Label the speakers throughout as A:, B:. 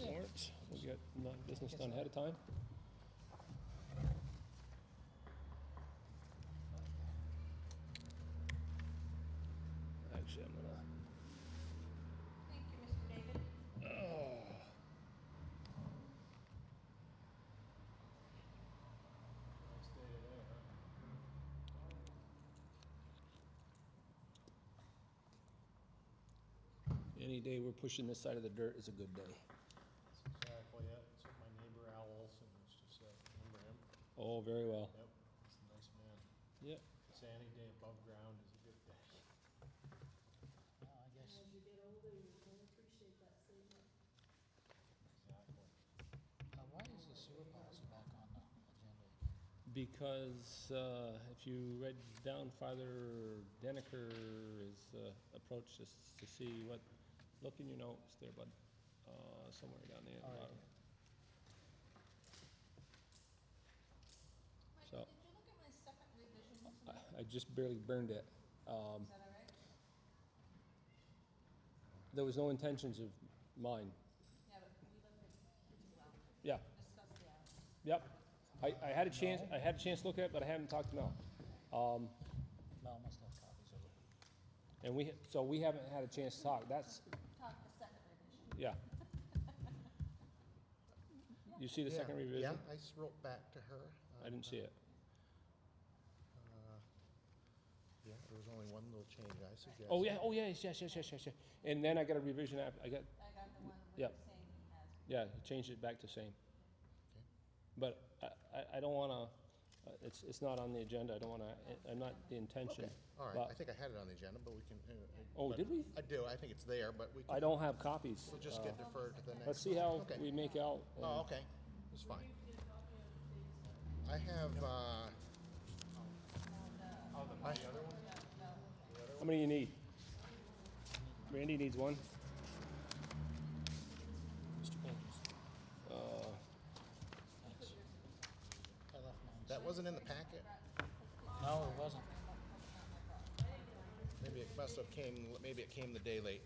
A: Warrants, we got non-business done ahead of time? Actually, I'm gonna,
B: Thank you, Mr. David.
A: any day we're pushing this side of the dirt is a good day.
C: Exactly, yeah, it's like my neighbor Al Olson, it's just, uh, remember him?
A: Oh, very well.
C: Yep, he's a nice man.
A: Yep.
C: It's any day above ground is a good day.
D: Well, I guess,
E: As you get older, you can appreciate that statement.
C: Exactly.
D: uh, why is the sewer policy back on the agenda?
A: Because uh, if you read down farther, Deniker is uh, approached us to see what, look in your notes there, bud, Uh, somewhere down there. at the
D: All right.
A: bottom. So-
B: Michael, did you look at my second revision tonight?
A: I- I just barely burned it. Um,
B: Is that all right?
A: There was no intentions of mine.
B: Yeah, but we looked at, pretty well,
A: Yeah,
B: discussed the uh,
A: yep.
B: hours.
A: I, I had a chance, I had a chance to look at it, but I haven't talked to Mel. Um,
D: Mel must have copies of it.
A: And we, so we haven't had a chance to talk. That's,
B: Talk the second revision.
A: yeah. You see the second
F: Yeah,
A: revision?
F: Yeah, I s- wrote back to her. Uh,
A: I didn't see it.
F: Yeah, there was only one little change I suggested.
A: Oh, yeah, oh, yes, yes, yes, yes, yes, yes. And then I got a revision, app- I got,
B: I got the one with
A: Yep.
B: the same he has.
A: yeah, changed it back to same.
F: Okay.
A: But I- I, I don't wanna, uh, it's, it's not on the agenda, I don't wanna, I'm not the intention.
F: Okay, all right,
A: but-
F: I think I had it on the agenda, but we can. uh, uh,
A: Oh,
F: but-
A: did we?
F: I do, I think it's there, but we
A: I
F: can,
A: don't have copies.
F: we'll just
A: Uh,
F: get deferred to the next.
A: Let's see how
F: Okay.
A: we make out.
F: Oh, okay, it's fine. I have, uh,
A: How many you need? Randy needs one.
D: Mr. Pages.
A: Uh,
D: Thanks. I left mine.
F: that wasn't in the packet,
D: No, it wasn't.
F: maybe it must have came, maybe it came the day late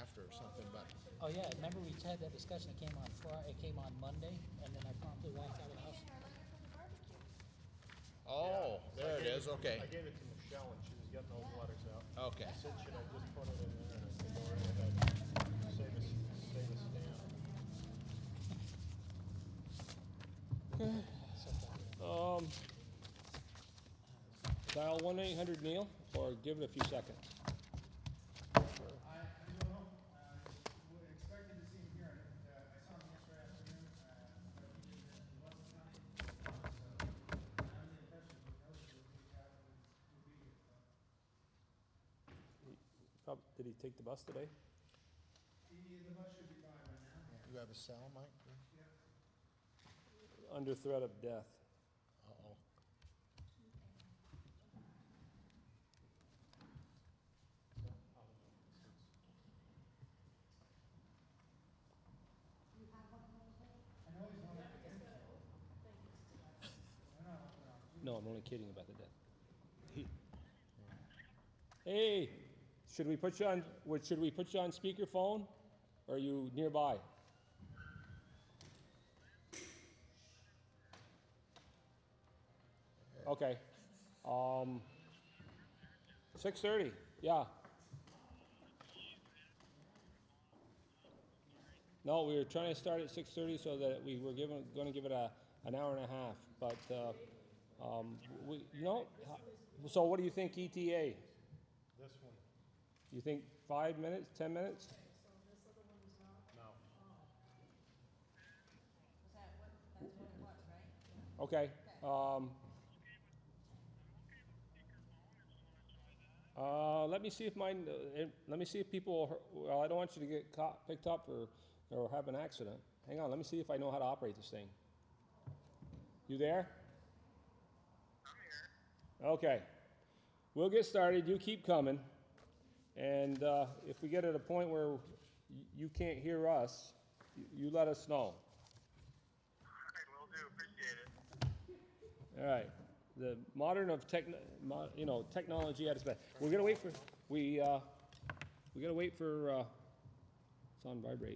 F: after or something, but,
D: Oh, yeah, remember we had that discussion, it came on Friday, it came on Monday, and then I promptly walked out of the house.
F: oh, there it is,
C: I
F: okay,
C: gave it to Michelle and she was getting those letters out.
F: okay.
C: I said, should I just put it in there and I said, "Don't worry about it. save us, save us down.
A: Um, dial one eight hundred Neil or give it a few seconds.
G: I, I don't know, uh, we're expecting to see him here, and, uh, I saw him yesterday afternoon, uh, but he didn't, he wasn't coming. So, I have the impression he knows that we'll be, out, we'll be here, but
A: Prob- Did he take the bus today?
G: he, the bus should be by by now.
F: You have a cell, Mike?
A: Under threat of death.
F: Uh-oh.
G: I know he's on that again. No, no, no.
A: No, I'm only kidding about the death. He- Hey, should we put you on, what, should we put you on speakerphone? Or Are you nearby? Okay, um, six thirty, yeah. No, we were trying to start at six thirty so that we were given, gonna give it a, an hour and a half, but, uh, um, we, you know, so what do you think ETA?
C: This one,
A: You think five minutes, 10 minutes?
C: no.
B: Was that what, that's what it was, right?
A: Okay. Um, uh, let me see if mine, uh, eh, let me see if people, well, I don't want you to get caught, picked up or, or have an accident. Hang on, let me see if I know how to operate this thing. You there? I'm here. Okay. We'll get started. You keep coming. And uh, if we get at a point where y- you can't hear us, you, you let us know.
H: will do. Appreciate it.
A: All right, the modern of tech, mo- you know, technology at its best. We're gonna wait for, we, uh, we gotta wait for, uh, it's on vibrate.